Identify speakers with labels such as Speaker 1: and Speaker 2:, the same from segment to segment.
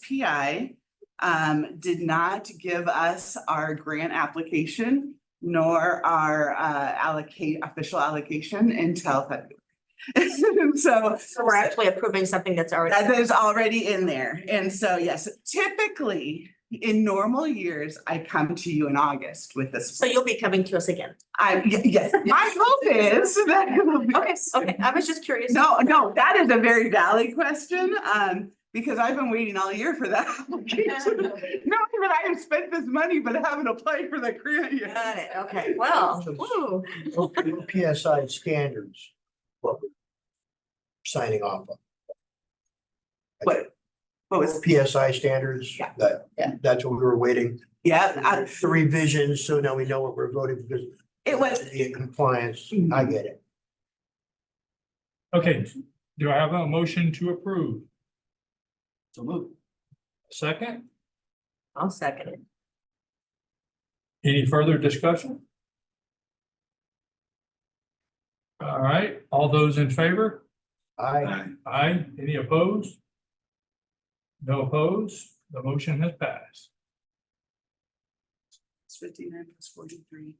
Speaker 1: OSPI um, did not give us our grant application nor our uh, allocate, official allocation until February. So
Speaker 2: So we're actually approving something that's already,
Speaker 1: that is already in there. And so, yes, typically in normal years, I come to you in August with this.
Speaker 2: so you'll be coming to us again.
Speaker 1: I, y- yes, my hope is that it will be.
Speaker 2: Okay, okay, I was just curious.
Speaker 1: No, no, that is a very valid question, um, because I've been waiting all year for that application. Not that I have spent this money, but I haven't applied for that grant yet.
Speaker 2: Got it, okay, well, ooh,
Speaker 3: PSI standards. what we're Signing off on.
Speaker 1: What, what was,
Speaker 3: PSI standards,
Speaker 1: Yeah.
Speaker 3: that,
Speaker 1: Yeah.
Speaker 3: that's what we were waiting.
Speaker 1: yeah, I-
Speaker 3: The revisions, so now we know what we're voting because.
Speaker 1: it was,
Speaker 3: be In compliance, I get it.
Speaker 4: Okay, do I have a motion to approve?
Speaker 5: So move.
Speaker 4: Second,
Speaker 2: I'll second it.
Speaker 4: any further discussion? All right, all those in favor?
Speaker 3: I,
Speaker 4: Aye, any opposed? No opposed, the motion has passed.
Speaker 1: fifty-nine plus forty-three.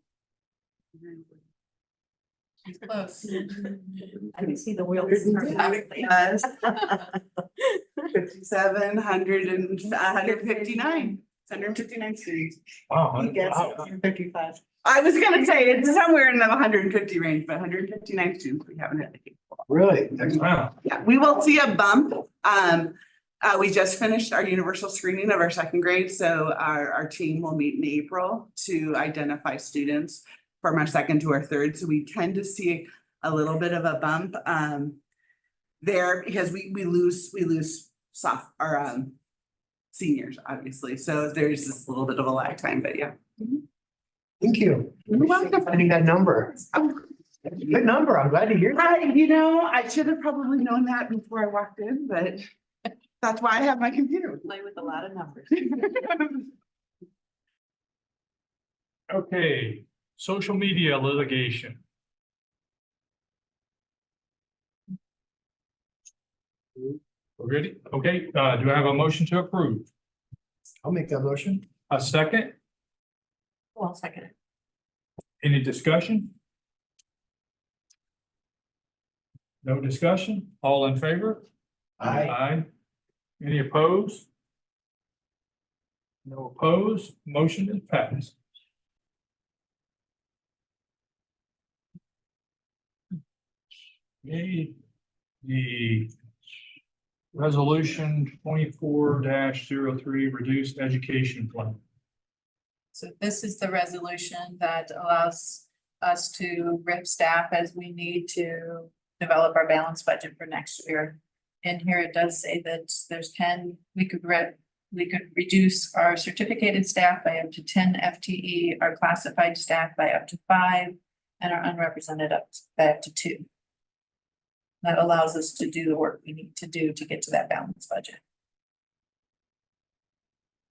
Speaker 6: Close.
Speaker 2: I can see the wheels.
Speaker 1: Yes, fifty-seven, hundred and, hundred fifty-nine, hundred fifty-nine students.
Speaker 4: Wow,
Speaker 1: You guessed it.
Speaker 4: wow.
Speaker 6: Fifty-five.
Speaker 1: I was gonna say, it's somewhere in the hundred and fifty range, but hundred and fifty-nine students, we haven't had.
Speaker 3: really,
Speaker 4: Wow,
Speaker 1: Yeah, we will see a bump. Um, uh, we just finished our universal screening of our second grade, so our, our team will meet in April to identify students from our second to our third, so we tend to see a little bit of a bump, um, there, because we, we lose, we lose soft, our, um, seniors, obviously, so there's this little bit of a lag time, but yeah.
Speaker 3: thank you.
Speaker 1: You're welcome.
Speaker 3: Finding that number. Good number, I'm glad to hear that.
Speaker 1: I, you know, I should have probably known that before I walked in, but that's why I have my computer. with me.
Speaker 6: Play with a lot of numbers.
Speaker 4: okay, social media litigation. Ready? Okay, uh, do I have a motion to approve?
Speaker 3: I'll make that motion.
Speaker 4: A second,
Speaker 2: I'll second it.
Speaker 4: any discussion? No discussion, all in favor?
Speaker 3: I,
Speaker 4: Any opposed? No opposed, motion is passed. Okay, the resolution twenty-four 3 reduced education plan.
Speaker 6: So this is the resolution that allows us to rip staff as we need to develop our balanced budget for next year. In here, it does say that there's ten, we could re- we could reduce our certificated staff by up to ten FTE, our classified staff by up to five, and our unrepresented up, by up to two. That allows us to do the work we need to do to get to that balanced budget.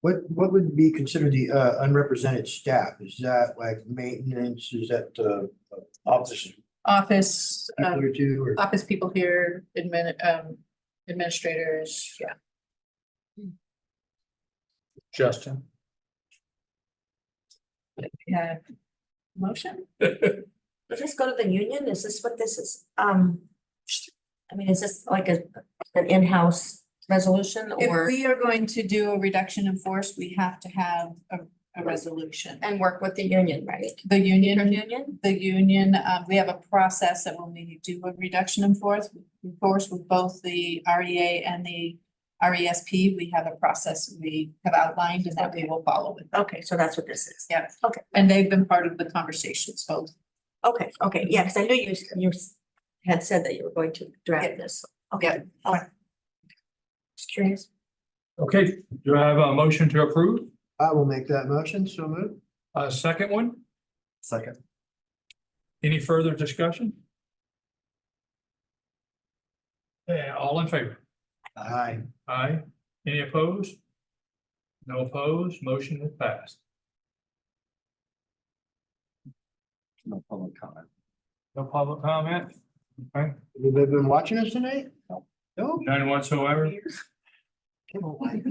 Speaker 3: what, what would be considered the uh, unrepresented staff? Is that like maintenance? Is that uh office
Speaker 6: Office, uh,
Speaker 3: people or two or?
Speaker 6: office people here, admin, um, administrators, yeah.
Speaker 4: Justin.
Speaker 6: Yeah. Motion?
Speaker 2: Just go to the union, is this what this is? Um, I mean, is this like a, an in-house resolution
Speaker 6: If
Speaker 2: or?
Speaker 6: we are going to do a reduction in force, we have to have a, a resolution.
Speaker 2: And work with the union, right?
Speaker 6: The union,
Speaker 2: Union?
Speaker 6: the union, um, we have a process that when we do a reduction in force, in force with both the REA and the RESP, we have a process we have outlined and that we will follow with.
Speaker 2: Okay, so that's what this is.
Speaker 6: Yeah.
Speaker 2: Okay.
Speaker 6: And they've been part of the conversations, both
Speaker 2: Okay, okay, yeah, because I knew you, you had said that you were going to
Speaker 6: Yeah.
Speaker 2: draft this.
Speaker 6: Yeah.
Speaker 2: Okay. all right. Just curious.
Speaker 4: Okay, do I have a motion to approve?
Speaker 3: I will make that motion, so move.
Speaker 4: A Uh, second one,
Speaker 3: Second.
Speaker 4: any further discussion? Yeah, Eh, all in favor?
Speaker 3: Aye.
Speaker 4: Aye. Any opposed? No opposed, motion is passed.
Speaker 5: No public comment.
Speaker 4: No public comment? Okay,
Speaker 3: Have they been watching us tonight? No.
Speaker 4: none whatsoever?
Speaker 3: Come on, Mike.